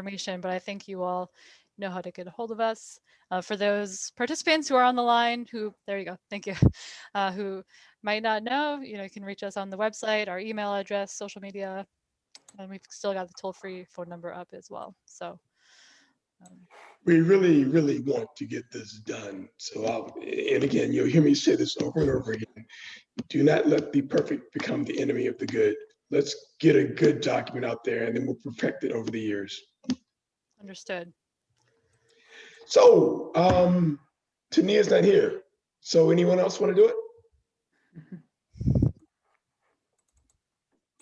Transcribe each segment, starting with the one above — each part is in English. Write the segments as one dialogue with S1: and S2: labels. S1: information, but I think you all know how to get a hold of us. Uh, for those participants who are on the line, who, there you go, thank you, uh, who might not know, you know, you can reach us on the website, our email address, social media, and we've still got the toll-free phone number up as well, so. um,
S2: We really, really want to get this done. So, I'll- and again, you'll hear me say this over and over again. Do not let the perfect become the enemy of the good. Let's get a good document out there and then we'll perfect it over the years.
S1: Understood.
S2: So, um, Tania's not here. So anyone else want to do it?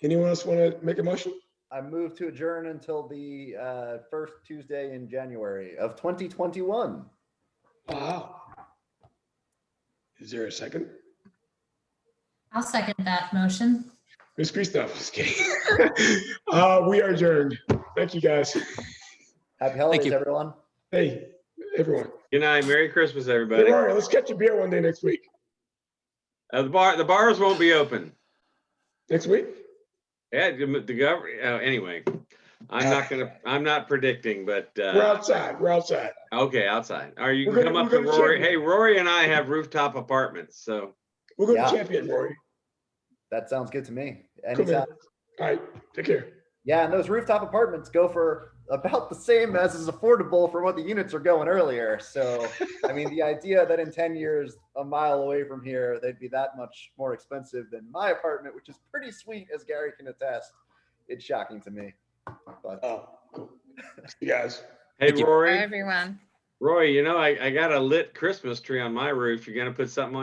S2: Anyone else want to make a motion?
S3: I move to adjourn until the uh, first Tuesday in January of 2021.
S2: Wow. Is there a second?
S4: I'll second that motion.
S2: Ms. Christoph, just kidding. Uh, we are adjourned. Thank you, guys.
S3: Happy holidays,
S5: you.
S3: everyone.
S2: Hey, everyone.
S6: Good night. Merry Christmas,
S2: Hey,
S6: everybody.
S2: Rory, let's catch a beer one day next week.
S6: Uh, the bar, the bars won't be open.
S2: Next week?
S6: Yeah, the, the government. Uh, anyway, I'm not gonna. I'm not predicting, but
S2: We're
S6: uh,
S2: outside. We're outside.
S6: okay, outside. Or you
S2: We're
S6: can
S2: gonna-
S6: come up
S2: we're
S6: to
S2: gonna check
S6: Rory.
S2: it.
S6: Hey, Rory and I have rooftop apartments, so
S2: We'll go to
S3: Yeah.
S2: Champion, Rory.
S3: That sounds good to me.
S2: Come in.
S3: Anytime.
S2: All right, take care.
S3: Yeah, and those rooftop apartments go for about the same as is affordable for what the units are going earlier. So, I mean, the idea that in 10 years, a mile away from here, they'd be that much more expensive than my apartment, which is pretty sweet, as Gary can attest. It's shocking to me. But
S2: Oh, cool. See you guys.
S6: hey,
S5: Thank you.
S6: Rory.
S7: Bye, everyone.
S6: Rory, you know I, I got a lit Christmas tree on my roof. You're gonna put something on.